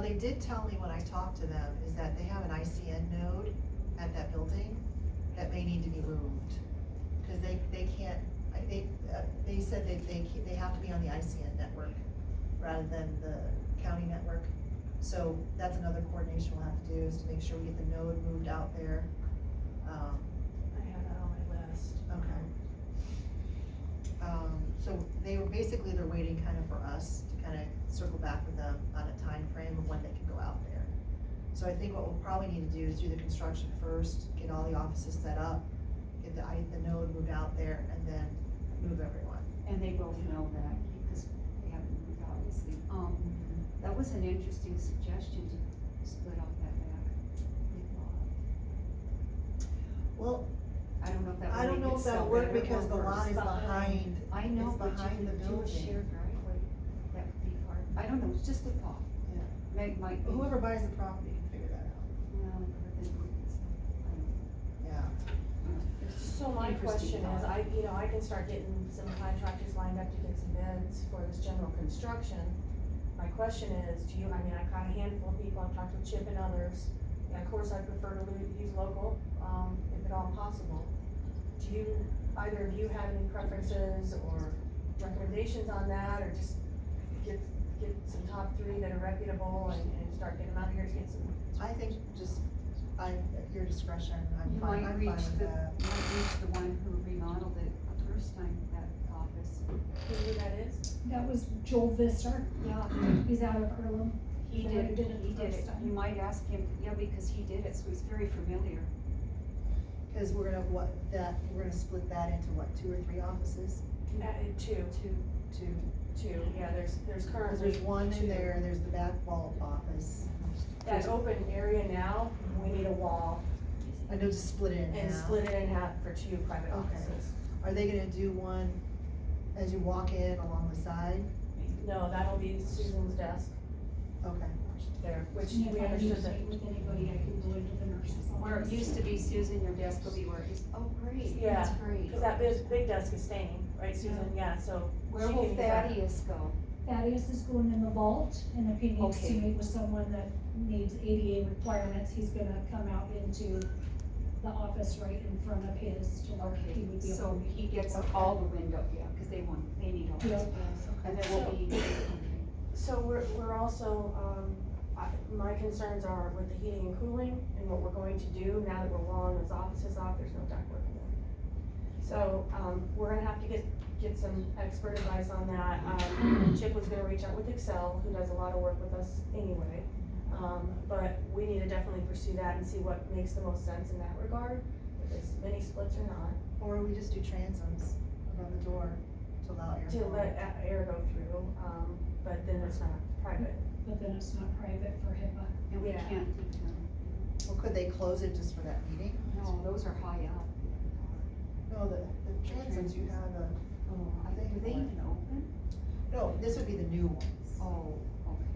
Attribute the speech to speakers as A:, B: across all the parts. A: they did tell me when I talked to them, is that they have an ICN node at that building that may need to be moved. Cause they, they can't, I, they, uh, they said that they, ca- they have to be on the ICN network rather than the county network. So that's another coordination we'll have to do, is to make sure we get the node moved out there. Um,
B: I have that on my list.
A: Okay. Um, so they were, basically, they're waiting kind of for us to kind of circle back with them on a time frame of when they can go out there. So I think what we'll probably need to do is do the construction first, get all the offices set up, get the, I- the node moved out there, and then move everyone.
C: And they both know that, because they haven't moved, obviously. Um, that was an interesting suggestion to split off that back.
A: Well,
C: I don't know if that would
A: I don't
C: make
A: know
C: it
A: if
C: so
A: that'll work
C: better or
A: because the
C: worse.
A: lot is behind,
C: I know,
A: it's
C: but you
A: behind the
C: could do a
A: building.
C: shared driveway, that would be hard, I don't know, it's just a thought.
A: Yeah.
C: Meg might be.
A: whoever buys the property can figure that out,
C: No, but then it's not- I don't know.
A: yeah.
B: So my question
C: Interesting
B: is,
C: thought.
B: I, you know, I can start getting some contractors lined up to get some bids for this general construction. My question is, do you, I mean, I've got a handful of people, I've talked to Chip and others, and of course, I prefer to lo- use local, um, if at all possible. Do you, either of you have any preferences or recommendations on that, or just get, get some top three that are reputable and, and start getting them out here to get some
A: I think just, I, at your discretion, I'm
C: You
A: fine,
C: might
A: I'm fine
C: reach
A: with
C: the,
A: that.
C: might reach the one who remodeled it the first time, that office.
B: who that is?
D: That was Joel Visser.
C: Yeah,
D: He's out of Earlham.
C: He
D: So
C: did,
D: I did it
C: he did
D: first
C: it.
D: time.
C: You might ask him, yeah, because he did it, so he's very familiar.
A: Cause we're gonna, what, that, we're gonna split that into what, two or three offices?
B: Uh, two,
C: Two,
A: Two,
B: two, yeah, there's, there's currently.
A: cause there's one
B: two.
A: in there, and there's the back wall office,
B: That open area now, we need a wall
A: I know just split it in
B: and
A: half.
B: split it in half for two private
A: Okay.
B: offices.
A: Are they gonna do one as you walk in along the side?
B: No, that'll be Susan's desk
A: Okay,
B: there, which
D: And if
B: we
D: I need
B: understood
D: to
B: that.
D: meet with anybody, I can go into the nurse's office.
C: where it used to be Susan, your desk will be where it is, oh, great, that's
B: Yeah,
C: great.
B: Cause that big, big desk is staying, right Susan, yeah, so.
C: Where
B: she
C: will
B: can use that.
C: Thaddeus go?
D: Thaddeus is going in the vault, and if he needs to
C: Okay.
D: meet with someone that needs ADA requirements, he's gonna come out into the office right in front of his to where he
C: Okay,
D: would be.
C: so
D: able to
C: he gets
D: Okay.
C: all the window, yeah, cause they want, they need all
D: Yeah.
C: this, and there will be.
B: So we're, we're also, um, I, my concerns are with the heating and cooling and what we're going to do now that we're walling those offices off, there's no ductwork in there. So, um, we're gonna have to get, get some expert advice on that. Um, Chip was gonna reach out with Excel, who does a lot of work with us anyway. Um, but we need to definitely pursue that and see what makes the most sense in that regard, if it's mini splits or not,
A: or we just do transoms above the door to allow air.
B: to
A: flow.
B: let a- air go through, um, but then it's not private.
D: But then it's not private for HIPAA.
C: And we
B: Yeah.
C: can't keep them,
A: Well, could they close it just for that meeting?
C: no, those are high up.
A: No, the, the transoms you have, uh,
C: Oh, I, do they even open?
A: no, this would be the new ones.
C: Oh, okay.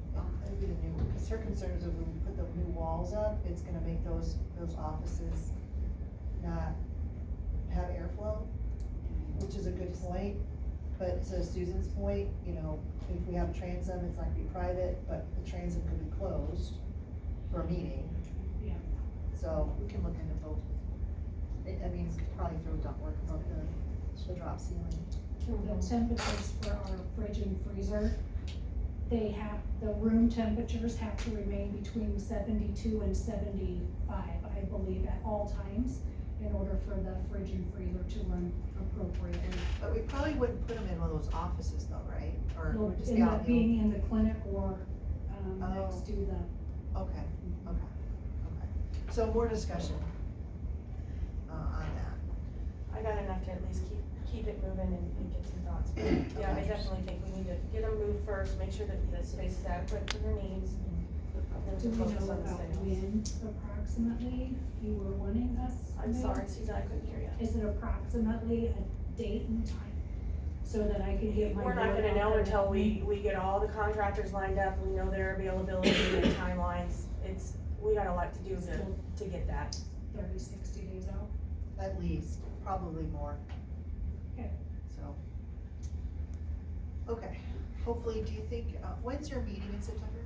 A: That would be the new, because her concern is that when we put the new walls up, it's gonna make those, those offices not have airflow, which is a good point. But to Susan's point, you know, if we have transom, it's not gonna be private, but the transom could be closed for a meeting.
D: Yeah.
A: So we can look into both. It, I mean, probably through ductwork above the, the drop ceiling.
D: the temperatures for our fridge and freezer, they have, the room temperatures have to remain between seventy-two and seventy-five, I believe, at all times in order for the fridge and freezer to run appropriately.
A: But we probably wouldn't put them in one of those offices though, right? Or it
D: Will
A: would just be
D: end
A: out
D: up
A: in
D: being in the clinic or, um,
A: Oh.
D: next to the
A: the, okay. Okay, okay. So more discussion uh, on that.
B: I got enough to at least keep, keep it moving and, and get some thoughts. But Yeah, I definitely think we need to get them moved first, make sure that the space is adequate for their needs. and
D: Do
B: then
D: we
B: focus
D: know
B: on the
D: about
B: sales.
D: when approximately you were wanting us?
B: I'm
D: Meg?
B: sorry, Susan, I couldn't hear you.
D: Is it approximately a date and time so that I can get my.
B: We're not
D: word
B: gonna
D: out
B: know
D: there?
B: until we, we get all the contractors lined up, we know their availability and timelines. It's, we got a lot to do to,
D: Still
B: to get that.
D: Thirty, sixty days out.
A: At least, probably more.
D: Okay.
A: So. Okay, hopefully, do you think, uh, when's your meeting in September?